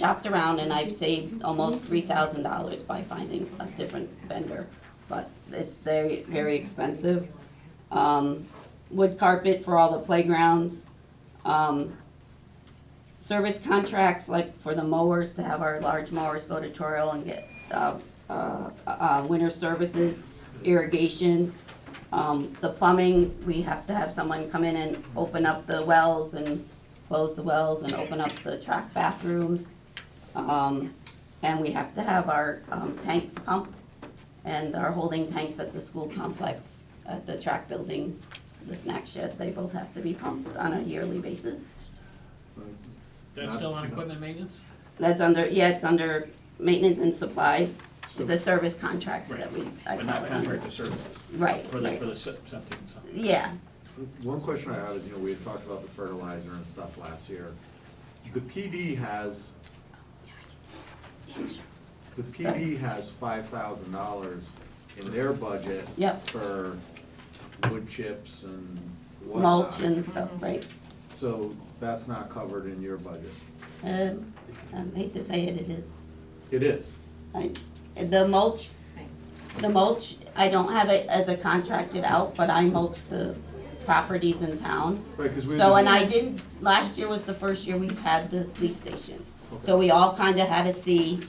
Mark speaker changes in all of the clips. Speaker 1: shopped around and I've saved almost three thousand dollars by finding a different vendor. But it's very, very expensive. Um, wood carpet for all the playgrounds. Um, service contracts, like for the mowers, to have our large mowers go to Toriel and get, uh, uh, uh, winter services, irrigation. Um, the plumbing, we have to have someone come in and open up the wells and close the wells and open up the trash bathrooms. Um, and we have to have our, um, tanks pumped and our holding tanks at the school complex, at the track building, the snack shed, they both have to be pumped on a yearly basis.
Speaker 2: That's still on equipment maintenance?
Speaker 1: That's under, yeah, it's under maintenance and supplies, it's a service contracts that we, I
Speaker 2: But not
Speaker 1: call it under.
Speaker 2: contractor services,
Speaker 1: Right,
Speaker 2: for the,
Speaker 1: right,
Speaker 2: for the se- septic and stuff.
Speaker 1: yeah,
Speaker 3: One question I have is, you know, we had talked about the fertilizer and stuff last year. The PD has, the PD has five thousand dollars in their budget
Speaker 1: Yep.
Speaker 3: for wood chips and whatnot.
Speaker 1: mulch and stuff, right?
Speaker 3: So that's not covered in your budget.
Speaker 1: Um, I hate to say it, it is.
Speaker 3: It is.
Speaker 1: I, the mulch, the mulch, I don't have it as a contracted out, but I mulch the properties in town.
Speaker 3: Right, 'cause we
Speaker 1: So,
Speaker 3: just-
Speaker 1: and I didn't, last year was the first year we've had the police station. So we all kinda had to see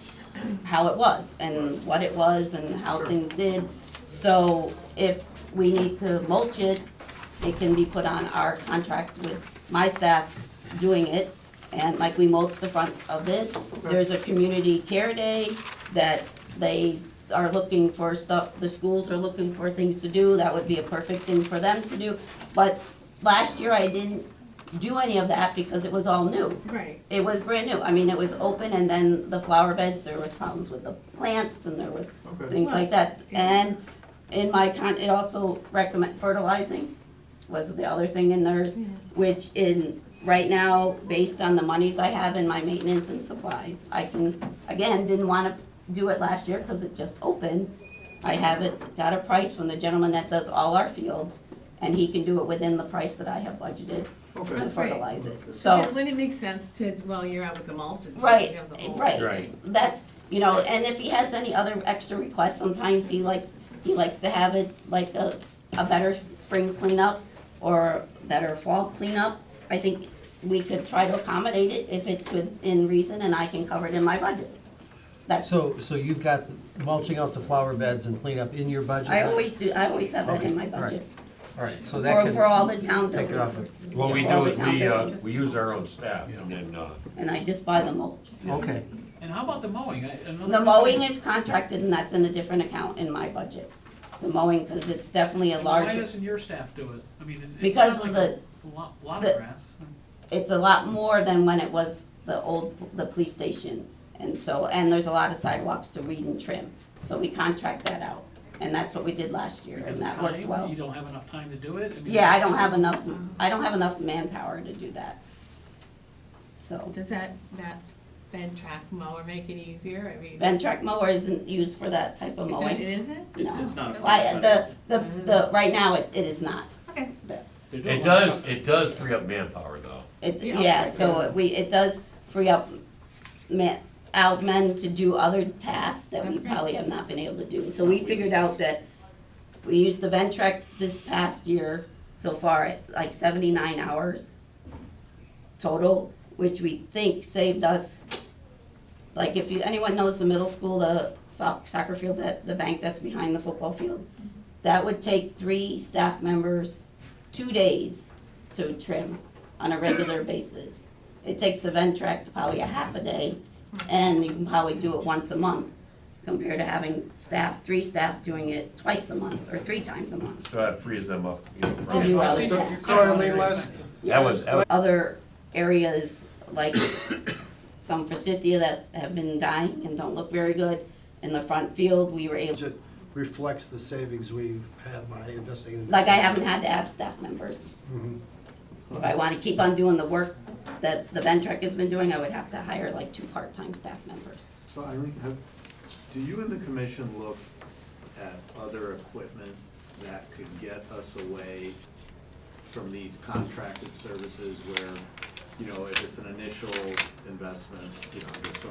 Speaker 1: how it was and what it was and how things did. So if we need to mulch it, it can be put on our contract with my staff doing it. And like we mulch the front of this, there's a community care day that they are looking for stuff, the schools are looking for things to do, that would be a perfect thing for them to do. But last year I didn't do any of that because it was all new.
Speaker 4: Right.
Speaker 1: It was brand new. I mean, it was open and then the flower beds, there was problems with the plants and there was
Speaker 3: Okay.
Speaker 1: things like that. And in my con, it also recommend fertilizing was the other thing in theirs, which in, right now, based on the monies I have in my maintenance and supplies, I can, again, didn't wanna do it last year because it just opened. I have it, got a price from the gentleman that does all our fields and he can do it within the price that I have budgeted
Speaker 3: Okay.
Speaker 1: to
Speaker 4: That's great.
Speaker 1: fertilize it, so.
Speaker 4: So wouldn't it make sense to, while you're out with the mulch, it's like
Speaker 1: Right,
Speaker 4: you have the whole.
Speaker 1: right.
Speaker 2: Right.
Speaker 1: That's, you know, and if he has any other extra requests, sometimes he likes, he likes to have it like a, a better spring cleanup or better fall cleanup. I think we could try to accommodate it if it's within reason and I can cover it in my budget. That's,
Speaker 5: So, so you've got mulching out the flower beds and cleanup in your budget?
Speaker 1: I always do, I always have that in my
Speaker 5: Okay, all right.
Speaker 1: budget.
Speaker 5: All right, so that
Speaker 1: For, for all
Speaker 5: can,
Speaker 1: the town
Speaker 5: take it off
Speaker 1: buildings.
Speaker 6: What we
Speaker 1: Yeah, all
Speaker 6: do
Speaker 1: the
Speaker 6: is
Speaker 1: town
Speaker 6: we, uh,
Speaker 1: buildings.
Speaker 6: we use our own staff and then, uh,
Speaker 1: And I just buy the mulch.
Speaker 5: okay,
Speaker 2: And how about the mowing? I- another
Speaker 1: The mowing
Speaker 2: company-
Speaker 1: is contracted and that's in a different account in my budget. The mowing, cause it's definitely a
Speaker 2: Why
Speaker 1: larger,
Speaker 2: doesn't your staff do it? I mean, it- it's
Speaker 1: Because
Speaker 2: not
Speaker 1: of
Speaker 2: like a Lot, lot
Speaker 1: the-
Speaker 2: of grass.
Speaker 1: it's a lot more than when it was the old, the police station. And so, and there's a lot of sidewalks to weed and trim, so we contract that out. And that's what we did last year
Speaker 2: Because
Speaker 1: and
Speaker 2: of
Speaker 1: that worked
Speaker 2: time,
Speaker 1: well.
Speaker 2: You don't have enough time to do it? mean-
Speaker 1: Yeah, I don't have enough, I don't have enough manpower to do that. So,
Speaker 4: Does that, that bend track mower make it easier? I mean.
Speaker 1: Ventrac mower isn't used for that type of
Speaker 4: it don't- It
Speaker 1: mowing.
Speaker 4: isn't?
Speaker 2: It-
Speaker 1: No.
Speaker 2: It's not a.
Speaker 1: I,
Speaker 2: fun-
Speaker 1: the, the, the, right now, it, it is not.
Speaker 4: Okay.
Speaker 1: The-
Speaker 2: They do a
Speaker 6: it
Speaker 2: lot of
Speaker 6: does,
Speaker 2: stuff.
Speaker 6: it does free up manpower though.
Speaker 1: It,
Speaker 4: Yeah.
Speaker 1: yeah, so it- we, it does free up men, out men to do other tasks that we
Speaker 4: That's great.
Speaker 1: probably have not been able to do. So we figured out that we used the Ventrac this past year so far at like seventy-nine hours total, which we think saved us, like if you, anyone knows the middle school, the soc- soccer field, that, the bank that's behind the football field, that would take three staff members two days to trim on a regular basis. It takes the Ventrac probably a half a day, and you can probably do it once a month, compared to having staff, three staff doing it twice a month, or three times a month.
Speaker 6: So that frees them up, you know,
Speaker 1: To
Speaker 6: from
Speaker 1: do
Speaker 2: Well,
Speaker 1: other
Speaker 2: see,
Speaker 3: So-
Speaker 2: you're
Speaker 1: tasks.
Speaker 3: so Arlene,
Speaker 2: covering
Speaker 3: last-
Speaker 2: everything.
Speaker 6: That was, that was,
Speaker 1: Other areas, like some forsythia that have been dying and don't look very good, in the front field, we were able,
Speaker 7: budget reflects the savings we have by investing in.
Speaker 1: like I haven't had to have staff members. If I wanna keep on doing the work that the Ventrac has been doing, I would have to hire like two part-time staff members.
Speaker 3: So Irene, have, do you and the commission look at other equipment that could get us away from these contracted services where you know, if it's an initial investment, you know, just so